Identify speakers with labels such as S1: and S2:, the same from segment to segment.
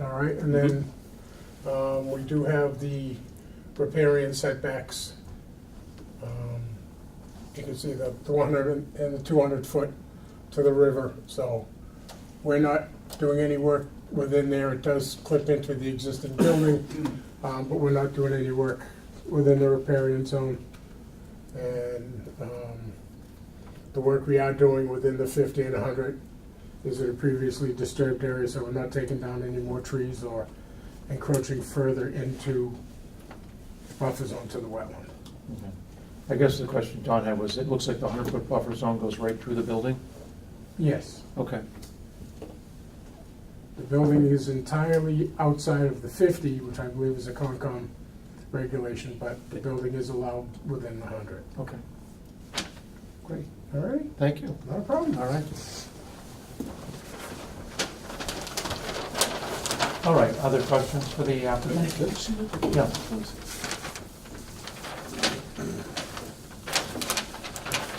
S1: All right, and then, um, we do have the riparian setbacks. Um, You can see the the 100 and the 200 foot to the river, so we're not doing any work within there. It does clip into the existing building, um, but we're not doing any work within the riparian zone. And, um, the work we are doing within the 50 and 100 is in a previously disturbed area, so we're not taking down any more trees or encroaching further into buffer zone to the wetland.
S2: Okay. I guess the question Don had was, it looks like the hundred foot buffer zone goes right through the building?
S1: Yes,
S2: Okay,
S1: the building is entirely outside of the 50, which I believe is a Concom regulation, but the building is allowed within the 100.
S2: okay. Great,
S1: All right,
S2: thank you.
S1: not a problem.
S2: All right. All right, other questions for the applicant? Yeah.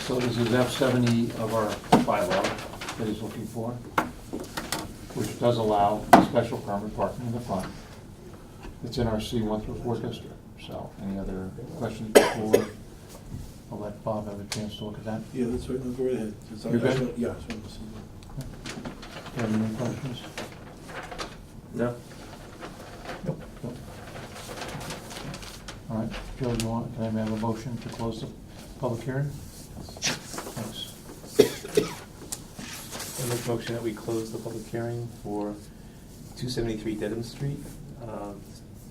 S2: So this is F seventy of our bylaw that he's looking for, which does allow special permit parking in the front. It's in our C one through four district, so any other questions before? I'll let Bob have a chance to look at that.
S3: Yeah, that's right, no, go right ahead. It's on-
S2: You're good?
S3: that's what- Yeah. it's on the scene.
S2: Do you have any questions?
S4: No.
S2: Nope. All right, Joe, do you want, can I have a motion to close the public hearing? Thanks.
S4: I make a motion that we close the public hearing for two seventy-three Dedham Street, um,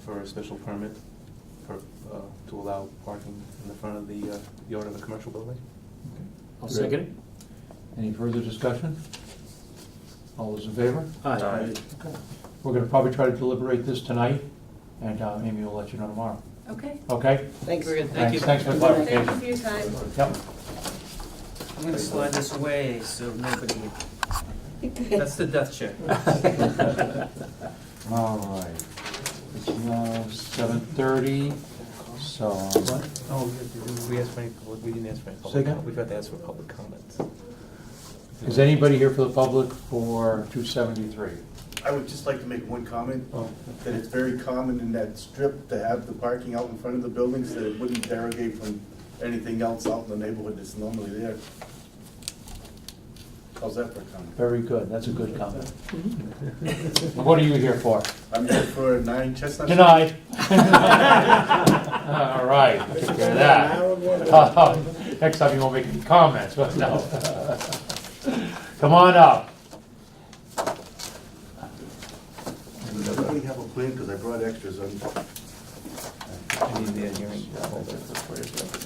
S4: for a special permit for, uh, to allow parking in the front of the, uh, yard of a commercial building.
S2: Okay.
S5: I'll second it.
S2: Any further discussion? All those in favor?
S4: Aye.
S2: Okay. We're gonna probably try to deliberate this tonight, and uh, Amy will let you know tomorrow,
S6: Okay.
S2: okay?
S5: Thanks.
S2: Thank you. Thanks for
S6: Thank you
S2: the clarification.
S6: for your time.
S2: Yep.
S5: I'm gonna slide this away so nobody, that's the death chair.
S2: All right. It's now seven thirty, so.
S4: Oh, we- we asked for any, public- we didn't ask for any public.
S2: Say again?
S4: comment. We've got to ask for public comments.
S2: Is anybody here for the public for two seventy-three?
S7: I would just like to make one comment,
S2: Oh.
S7: that it's very common in that strip to have the parking out in front of the buildings, that it wouldn't derogate from anything else out in the neighborhood that's normally there. How's that for a comment?
S2: Very good, that's a good comment. What are you here for?
S7: I'm here for nine Chestnut. Street.
S2: Denied. All right, take care of that. Next time you won't make any comments, but no. Come on up.
S7: Does everybody have a plan, because I brought extras Um, on.
S4: I need the hearing holder.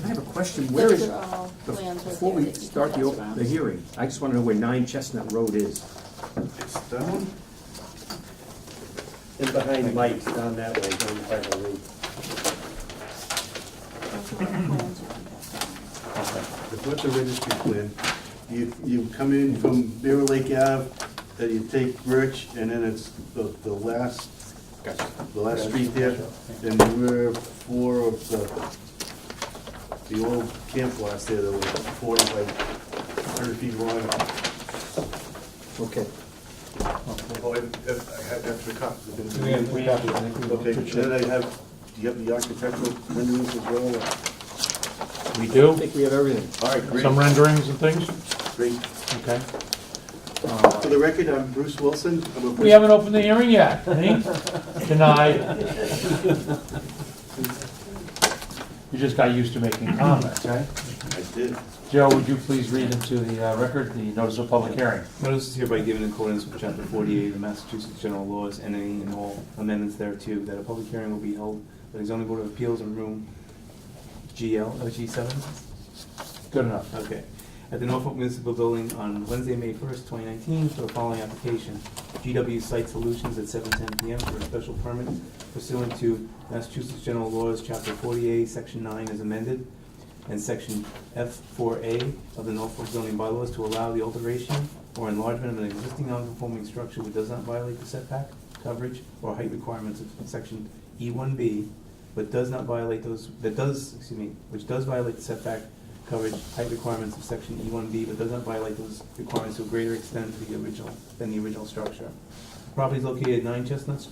S5: I have a question,
S8: Where
S5: where
S8: is,
S5: is,
S8: bef-
S5: before we start the, op- the hearing, I just wanna know where nine Chestnut Road is.
S7: It's down,
S4: And behind Mike's down that way, down by the road.
S7: it's with the registry plan. You, you come in from Bear Lake Ave, then you take Birch, and then it's the, the last, the last street there, and we're four of the, the old camp lots there that were forty by hundred feet long.
S5: Okay.
S7: Oh, and, and I have extra copies. I didn't-
S2: We have to, I think we have
S7: Okay,
S2: to check.
S7: then I have, do you have the architectural renderings as well?
S2: We
S5: I
S2: do,
S5: think we have everything.
S7: All right, great,
S2: some renderings and things,
S7: great.
S2: okay?
S7: For the record, I'm Bruce Wilson. I'm a
S2: We haven't opened the hearing yet, see? Denied. You just got used to making comments, right?
S7: I did.
S2: Joe, would you please read into the uh, record the notice of public hearing?
S4: Notice is hereby given in accordance with chapter forty-eight of the Massachusetts General Laws and any and all amendments thereto, that a public hearing will be held by the zoning board of appeals in room GL, oh, G seven?
S2: Good enough.
S4: Okay. At the Norfolk Municipal Building on Wednesday, May first, twenty nineteen, for the following application. GW Site Solutions at seven ten PM for a special permit pursuant to Massachusetts General Laws, chapter forty-eight, section nine as amended, and section F four A of the Norfolk zoning bylaws to allow the alteration or enlargement of an existing non-conforming structure which does not violate the setback, coverage, or height requirements of section E one B, but does not violate those, that does, excuse me, which does violate the setback, coverage, height requirements of section E one B, but does not violate those requirements to a greater extent to the original, than the original structure. Property is located at nine Chestnut